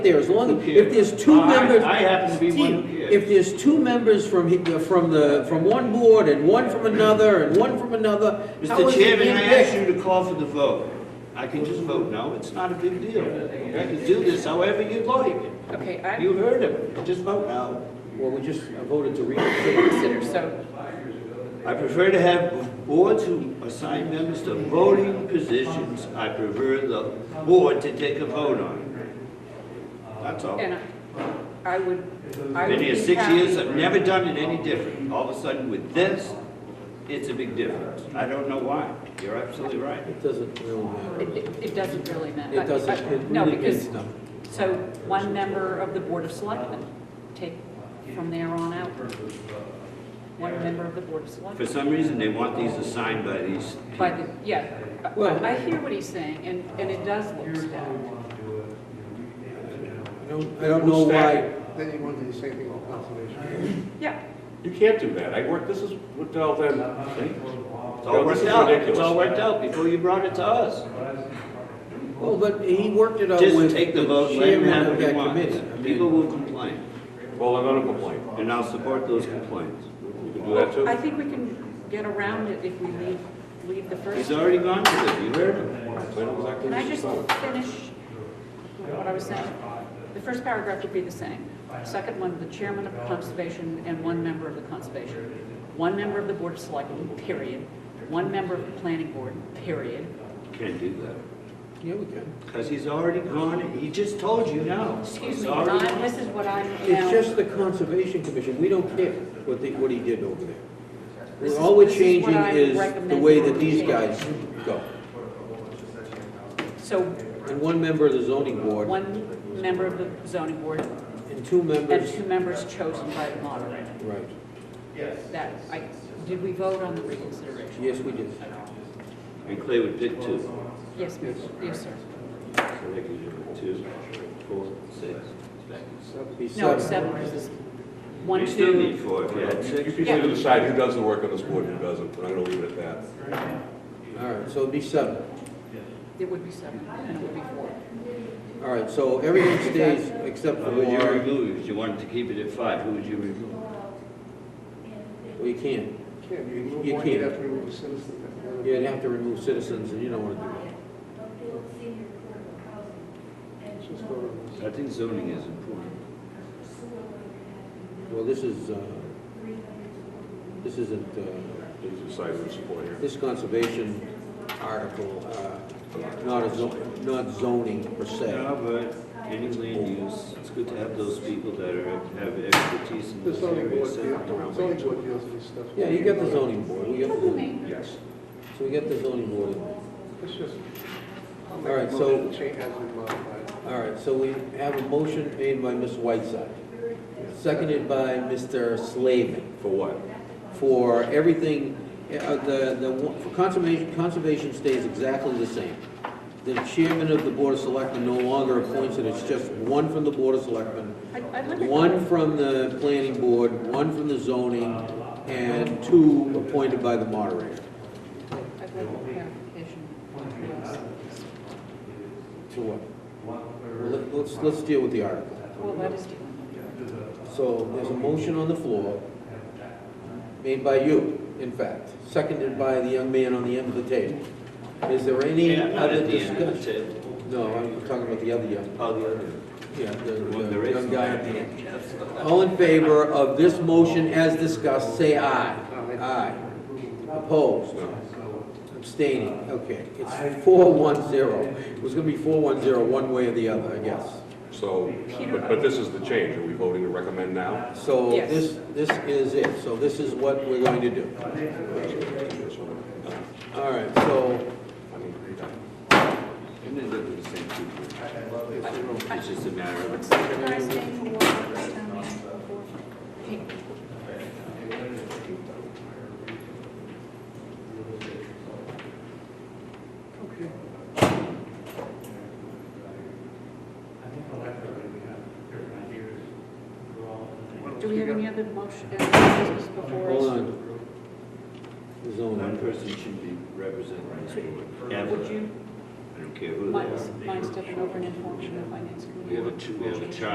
there, as long, Who cares? if there's two I- members. I happen to be one who Steve, cares. If there's two members from, he- the- from the, from one board and one from another and one from another. how Mr. is it Chairman, being I picked? asked you to call for the vote. I can just vote no, it's not a big deal. You can do this however you'd like. Okay, I You heard him, just vote no. Well, we just voted to reconsider. consider, so, I prefer to have boards who assign members to voting positions. I prefer the board to take a vote on it. That's all. and I- I would, I would Been here be six years, happy. I've never done it any different. All of a sudden with this, it's a big difference. I don't know why. You're absolutely right. It doesn't really matter. It, it- it doesn't really matter. It doesn't, it No, really because, means nothing. so one member of the Board of Selectmen, take from there on out. One member of the Board of For Selectmen. some reason, they want these assigned by these By the, yeah, I- Well- I hear what he's saying, and, and it does look stacked. I don't, I don't know why. Then you want to do the same thing on conservation. Yeah, You can't do that. I worked, this is what all them things. It's all worked out, it's all worked out before you brought it to us. Well, but he worked it out with Just take the the vote, let them chairman have of what they that want. committee. I mean, People will complain, Well, I'm gonna complain. and I'll support those complaints. You can do that I too. think we can get around it if we leave, leave the first. He's already gone with it, you heard him. So I know exactly Can what I she's just talking finish what I was saying? The first paragraph would be the same. Second one, the chairman of conservation and one member of the conservation. One member of the board of selectmen, period. One member of the planning board, period. Can't do that, Yeah, we can. because he's already gone, and he just told you now. Excuse He's me, already Ron, gone. this is what I'm It's now, just the Conservation Commission, we don't care what they, what he did over there. We're- This is- All we're this is what changing I is the recommend way you that these change. guys go. so And one member of the zoning board one member of the zoning board and two and members, two members chosen by the moderator. right. That, I, did we vote on the reconsideration? Yes, we did. And Clay would pick two, Yes, Yes, yes, sir. so they could do it two, four, six. That would be No, it's seven. seven, because it's one, You still need two, four if you had about. You six. people need to decide who does the work on this board, who doesn't, but I'm gonna leave it at that. All right, so it'd be seven. it would be seven, and it would be four. All right, so everything stays except for Who would you Warren. remove, if you wanted to keep it at five, who would you remove? We can't. Can't, you remove You one, you'd can't. have to remove a citizen. You'd have to remove citizens, and you don't want to do that. Don't build senior affordable housing. And Just go to I think zoning is important. Well, this is, uh, this isn't, uh, You decide who to support here. this conservation article, uh, not a zo- not zoning per se. Yeah, but any land use, it's good to have those people that are, have expertise in The this zoning area. board, so- deals- zoning board deals with this stuff. Yeah, you got the zoning board, we got the zoning, Yes. so we got the zoning board. in there. It's just. All right, so- Change has been modified. All right, so we have a motion made by Ms. Whiteside, seconded by Mr. Slavin. For what? for everything, uh, the, the, one- for conservation, conservation stays exactly the same. The chairman of the Board of Selectmen no longer appoints it, it's just one from the Board of Selectmen, I- I'd like to- one from the planning board, one from the zoning, and two appointed by the moderator. I'd like a clarification. To what? Well, let- Let's, let's deal with the article. Well, that is, So there's a motion on the floor, made by you, in fact, seconded by the young man on the end of the table. Is there any Yeah, not other at the end of the discussion? table. No, I'm talking about the other young, Oh, the other. yeah, the Well, the there is. young guy at the end. All in favor of this motion as discussed, say aye. Aye. Opposed? Abstaining, okay. It's four one zero. It was gonna be four one zero, one way or the other, I guess. So, but, but this is the change. Are we voting to recommend now? So Yes. this, this is it, so this is what we're going to do. All right, so, I mean, And then they're the same people. It's just a matter of. what's the last Thursday thing? for workers' town meeting before. Do we have any other motion, uh, business before hold us? on. One Zoning. person should be representing this board. Would ever. you, I don't care who they Mine's, are. mine's different over in information and finance committee. We have a, two- we have a charge